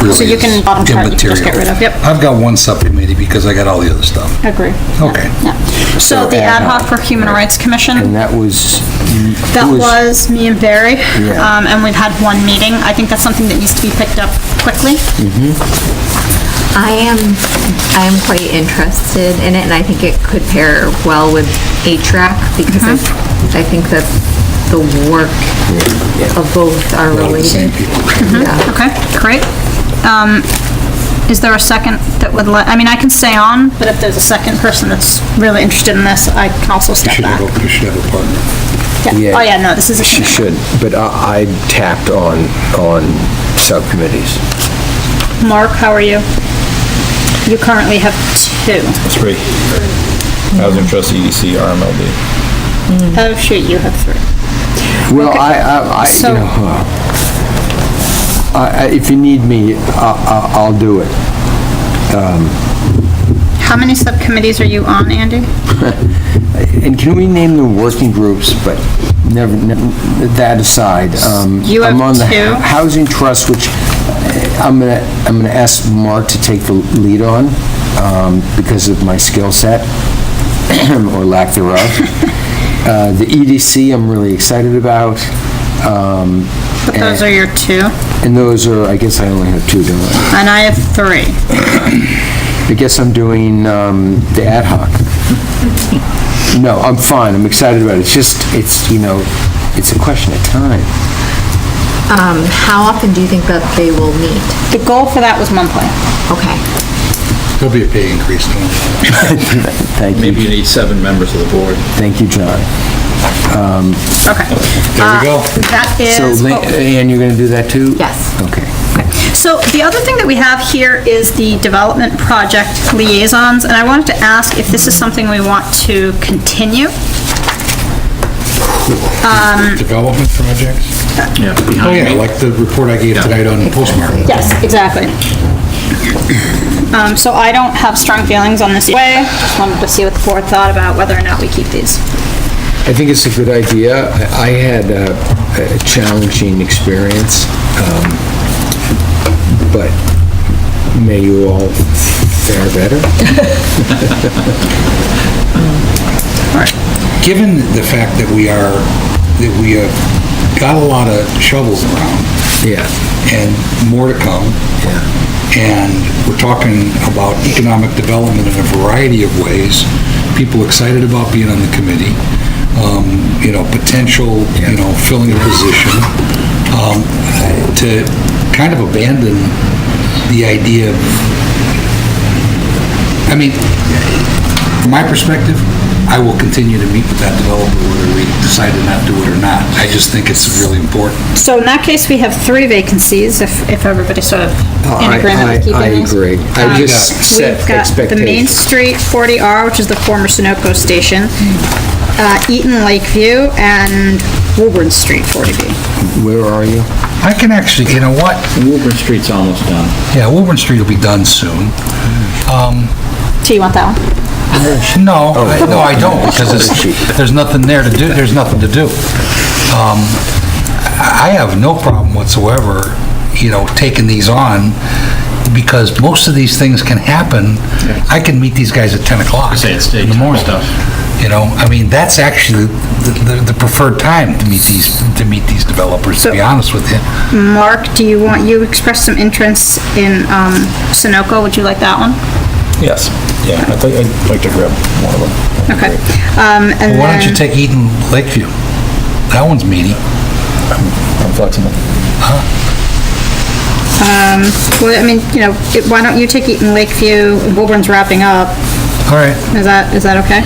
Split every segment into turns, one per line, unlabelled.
really
So you can
is
bottom chart, you can just get rid
immaterial.
of, yep.
I've got one subcommittee because I got all the other stuff.
Agree.
Okay.
Yeah. So the ad hoc for Human Rights Commission,
And that was...
that was me and Barry,
Yeah.
um, and we've had one meeting. I think that's something that needs to be picked up quickly.
I am, I am quite interested in it, and I think it could pair well with HRAC, because I I think that the work of both are related. Yeah.
Okay, great. Um, Is there a second that would let, I mean, I can stay on, but if there's a second person that's really interested in this, I can also step
Should
back.
have, a- should have a partner.
Yeah. Oh, yeah, no, this is a
She should, but I I tapped on, on subcommittees.
Mark, how are you? You currently have two.
Three. Housing Trust, E EDC, RMLD.
Oh, shoot, you have three.
Well, I, I, I, you
So-
know, uh, I- I- if you need me, I- I- I'll do it.
How many subcommittees are you on, Andy?
And can we name the working groups, but never, never- that aside, um...
You have
I'm on the
two.
Housing Trust, which uh, I'm gonna, I'm gonna ask Mark to take the lead on, um, because of my skill set, or lack thereof. Uh, The EDC, I'm really excited about, um,
But those are your two,
and those are, I guess I only have two, don't I?
and I have three.
I guess I'm doing um, the ad hoc. No, I'm fine, I'm excited about it, it's just, it's, you know, it's a question of time.
Um, How often do you think that they will meet?
The goal for that was monthly.
Okay.
There'll be a pay increase. don't worry.
Thank
Maybe
you,
you need seven members of the board.
thank you, John.
There
Okay. Uh,
we go.
That
So,
is,
Lin- uh,
oh,
Ann, you're gonna do that too?
Yes.
Okay.
so the other thing that we have here is the development project liaisons, and I wanted to ask if this is something we want to continue? mm.
Development projects?
Yeah.
Oh, yeah, like the report I gave tonight on postmark.
Yes, exactly. Um, so I don't have strong feelings on this way, just wanted to see what the board thought about whether or not we keep these.
I think it's a good idea. I I had a a challenging experience, um, but may you all fare better.
Given the fact that we are, that we have got a lot of shovels around
Yeah.
and more to come, and we're talking about economic development in a variety of ways, people excited about being on the committee, um, you know, potential, you know, filling a position, um, to kind of abandon the idea of, I mean, from my perspective, I will continue to meet with that developer whether we decide to not do it or not. I just think it's really important.
So in that case, we have three vacancies, if, if everybody's sort of in
Oh, I-
agreement
I-
with keeping
I
these.
agree. I
Um,
just set
We've got the Main
expectations.
Street 40R, which is the former Sunoco station, uh, Eaton Lakeview, and Woburn Street 40B.
Where are you?
I can actually, you know what?
Woburn Street's almost done.
Yeah, Woburn Street will be done soon. Um,
Do you want that one?
No, I- Oh, no, I don't, because there's, there's nothing there to do, there's nothing to do. Um, I I have no problem whatsoever, you know, taking these on, because most of these things can happen. I can meet these guys at 10 o'clock
Say it's
in the
daytime
morning.
stuff.
You know, I mean, that's actually the- the the preferred time to meet these, to meet these developers, to be
So-
honest with you.
Mark, do you want, you expressed some interest in um, Sunoco, would you like that one?
Yes. Yeah, I think I'd like to grab one of them.
Okay. Um, And
Why don't you
then,
take Eaton Lakeview? That one's meaty.
I'm flexible.
well, I mean, you know, it- why don't you take Eaton Lakeview, Woburn's wrapping up,
All right,
is that, is that okay?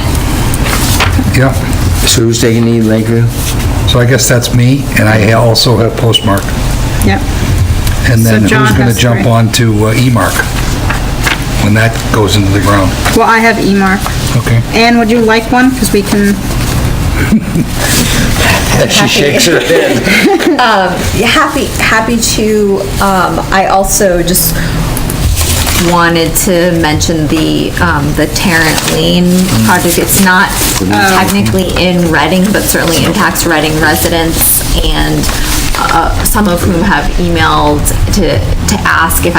yeah.
So who's taking the Lakeview?
So I guess that's me, and I also have postmark.
Yeah.
And then
So John
who's going to
has
jump
three.
on to uh, E-Mark when that goes into the ground?
Well, I have E-mark.
Okay.
Anne, would you like one? Because we can,
She shakes her head.
Yeah, happy, happy to, um, I also just wanted to mention the, um, the Tarrant Lane project. It's not technically in Reading, but certainly impacts Reading residents and, uh, some of whom have emailed to, to ask if